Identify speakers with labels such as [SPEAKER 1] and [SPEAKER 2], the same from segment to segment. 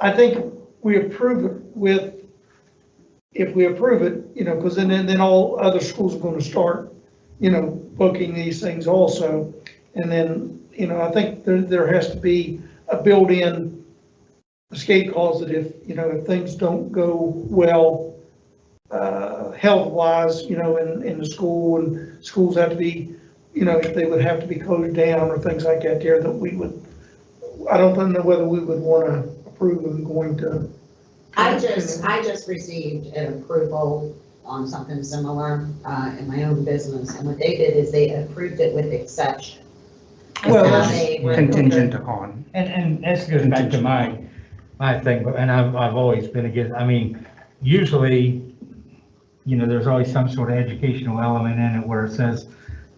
[SPEAKER 1] I think we approve it with, if we approve it, you know, because then, then all other schools are going to start, you know, booking these things also. And then, you know, I think there, there has to be a built-in escape clause that if, you know, if things don't go well, uh, health-wise, you know, in, in the school and schools have to be, you know, if they would have to be closed down or things like that there, that we would I don't know whether we would want to approve of going to.
[SPEAKER 2] I just, I just received an approval on something similar uh, in my own business, and what they did is they approved it with exception.
[SPEAKER 1] Well,
[SPEAKER 2] Now
[SPEAKER 1] that's
[SPEAKER 2] they were-
[SPEAKER 3] contingent upon.
[SPEAKER 4] And, and this goes back to my, my thing, and I've, I've always been against, I mean, usually, you know, there's always some sort of educational element in it where it says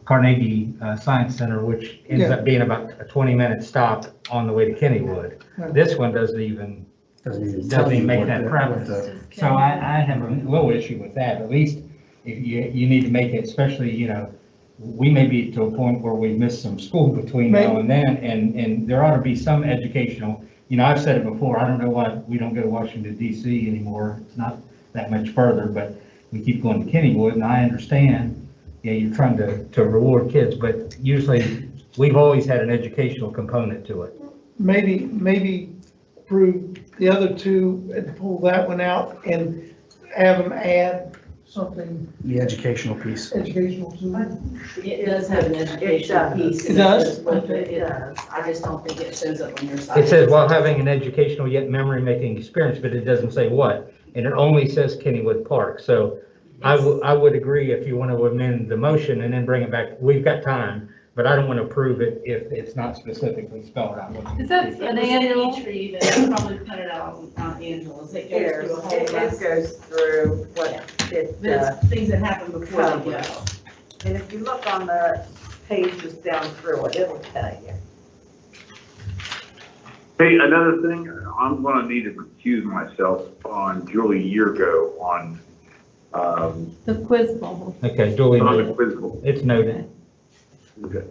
[SPEAKER 4] Carnegie uh, Science Center, which ends
[SPEAKER 1] Yeah.
[SPEAKER 4] up being about a 20-minute stop on the way to Kennywood.
[SPEAKER 1] Right.
[SPEAKER 4] This one doesn't even, Doesn't even make that preference. so I, I have a little issue with that. At least if you, you need to make it, especially, you know, we may be to a point where we miss some school between now
[SPEAKER 1] Maybe.
[SPEAKER 4] and then, and, and there ought to be some educational. You know, I've said it before, I don't know why we don't go to Washington DC anymore. It's not that much further, but we keep going to Kennywood, and I understand, yeah, you're trying to, to reward kids, but usually, we've always had an educational component to it.
[SPEAKER 1] Maybe, maybe approve the other two and pull that one out and have them add something
[SPEAKER 3] The educational piece.
[SPEAKER 1] educational to it.
[SPEAKER 5] It does have an education piece.
[SPEAKER 1] It does?
[SPEAKER 5] With It it does. I just don't think it shows up on your side.
[SPEAKER 4] It says while having an educational yet memory-making experience, but it doesn't say what, and it only says Kennywood Park, so I would, I would agree if you want to amend the motion and then bring it back, we've got time, but I don't want to prove it if it's not specifically spelled out.
[SPEAKER 6] Is that
[SPEAKER 5] It
[SPEAKER 6] an
[SPEAKER 5] was
[SPEAKER 6] annual?
[SPEAKER 5] any tree that probably cut it out on Mount Angela's. It goes
[SPEAKER 7] It
[SPEAKER 5] through a whole
[SPEAKER 7] it
[SPEAKER 5] list.
[SPEAKER 7] goes through what it, uh,
[SPEAKER 5] There's things that happen before they go.
[SPEAKER 7] and if you look on the pages down through it, it'll tell you.
[SPEAKER 8] Hey, another thing, I'm gonna need to recuse myself on Julie Yeargo on, um,
[SPEAKER 6] The quiz bowl.
[SPEAKER 4] Okay, Julie,
[SPEAKER 8] on
[SPEAKER 4] noted.
[SPEAKER 8] the quiz book.
[SPEAKER 4] it's noted.
[SPEAKER 8] Okay.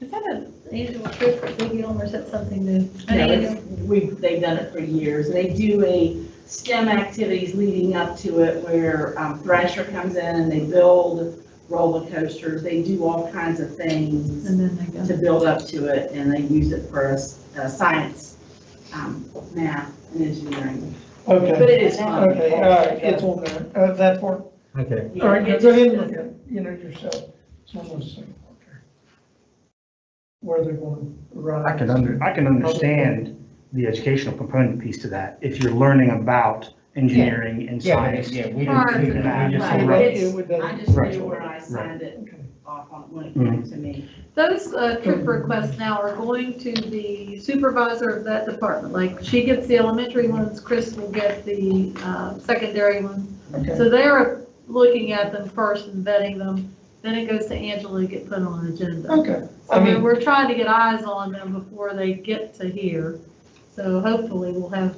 [SPEAKER 6] Is that an annual trip for Big Elm or is that something new? An
[SPEAKER 5] No,
[SPEAKER 6] annual-
[SPEAKER 5] it's- We've, they've done it for years. They do a STEM activities leading up to it where um, Thrasher comes in and they build roller coasters. They do all kinds of things.
[SPEAKER 6] And then they
[SPEAKER 5] to
[SPEAKER 6] go.
[SPEAKER 5] build up to it, and they use it for us, uh, science, um, math, and engineering. But
[SPEAKER 1] Okay,
[SPEAKER 5] it is fun.
[SPEAKER 1] okay, all right, it's on there, uh, that part.
[SPEAKER 4] Okay,
[SPEAKER 1] All right, go ahead and look at, it, you know, yourself. It's one of those things. Where they're going to run.
[SPEAKER 3] I can under, I can understand the educational component piece to that, if you're learning about engineering and
[SPEAKER 4] yeah, but,
[SPEAKER 3] science.
[SPEAKER 4] yeah, we
[SPEAKER 6] Or-
[SPEAKER 4] didn't, we didn't- we just
[SPEAKER 3] Right.
[SPEAKER 4] said-
[SPEAKER 3] Right.
[SPEAKER 1] It would
[SPEAKER 5] I
[SPEAKER 1] doesn't-
[SPEAKER 5] just
[SPEAKER 3] Right.
[SPEAKER 5] knew where I signed it off on when it came to me.
[SPEAKER 6] Those uh, trip requests now are going to the supervisor of that department. Like she gets the elementary ones, Chris will get the uh, secondary ones.
[SPEAKER 1] okay.
[SPEAKER 6] So they're looking at them first and vetting them. Then it goes to Angela to get put on an agenda.
[SPEAKER 1] Okay, I
[SPEAKER 6] So
[SPEAKER 1] mean,
[SPEAKER 6] we're trying to get eyes on them before they get to here. So hopefully we'll have.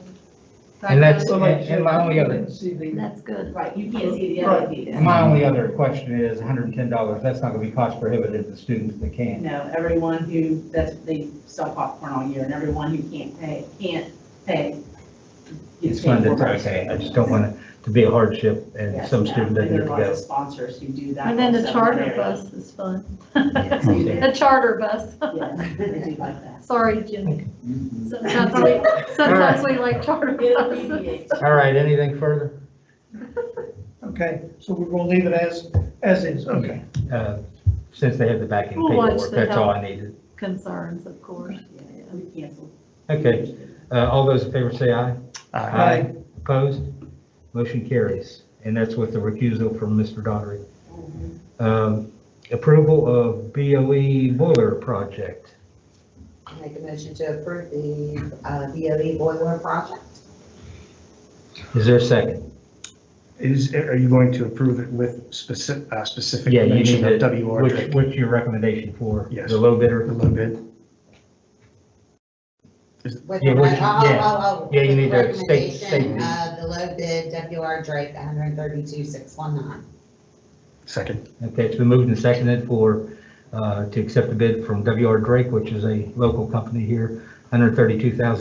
[SPEAKER 4] And that's-
[SPEAKER 1] so like.
[SPEAKER 4] And my only other-
[SPEAKER 1] See the-
[SPEAKER 6] That's good.
[SPEAKER 5] Right, you can't see the other people.
[SPEAKER 4] My only other question is hundred and ten dollars, that's not gonna be cost prohibitive to students that can.
[SPEAKER 5] No, everyone who, that's, they sell popcorn all year, and everyone who can't pay, can't pay.
[SPEAKER 4] It's fun to, okay, I just don't want it to be a hardship and some student doesn't get to
[SPEAKER 5] There are lots
[SPEAKER 4] go.
[SPEAKER 5] of sponsors who do that.
[SPEAKER 6] And then the
[SPEAKER 5] also.
[SPEAKER 6] charter bus is fun.
[SPEAKER 5] Yes, they do.
[SPEAKER 6] The charter bus.
[SPEAKER 5] Yeah, they do like that.
[SPEAKER 6] Sorry, Jimmy. Sometimes we, sometimes we like charter
[SPEAKER 5] It
[SPEAKER 6] buses.
[SPEAKER 5] alleviates
[SPEAKER 4] All right, anything further?
[SPEAKER 1] Okay, so we're going to leave it as, as is, okay.
[SPEAKER 4] Uh, Since they have the backing
[SPEAKER 6] We'll watch
[SPEAKER 4] paperwork,
[SPEAKER 6] the
[SPEAKER 4] that's all
[SPEAKER 6] help.
[SPEAKER 4] I needed.
[SPEAKER 6] Concerns, of course.
[SPEAKER 5] We canceled.
[SPEAKER 4] Okay, uh, all those in favor say aye.
[SPEAKER 3] Uh,
[SPEAKER 1] Aye.
[SPEAKER 4] Opposed? Motion carries, and that's with the recusal from Mr. Daughtry. Um, Approval of BOE boiler project.
[SPEAKER 2] Make a motion to approve the uh, BOE boiler project.
[SPEAKER 4] Is there a second?
[SPEAKER 3] Is, are you going to approve it with specific, uh, specific
[SPEAKER 4] Yeah, you
[SPEAKER 3] mention
[SPEAKER 4] need
[SPEAKER 3] of
[SPEAKER 4] to,
[SPEAKER 3] WR
[SPEAKER 4] which, what's your recommendation for?
[SPEAKER 3] Yes.
[SPEAKER 4] The low
[SPEAKER 3] a
[SPEAKER 4] bidder?
[SPEAKER 3] little bit?
[SPEAKER 2] With
[SPEAKER 4] Yeah,
[SPEAKER 2] the,
[SPEAKER 4] which-
[SPEAKER 2] oh, oh,
[SPEAKER 4] yeah.
[SPEAKER 2] oh, oh.
[SPEAKER 4] Yeah, you need to state- state
[SPEAKER 2] Recommendation
[SPEAKER 4] the-
[SPEAKER 2] of the low bid WR Drake, 132,619.
[SPEAKER 3] Second,
[SPEAKER 4] Okay, it's been moved and seconded for, uh, to accept the bid from WR Drake, which is a local company here, 132,000.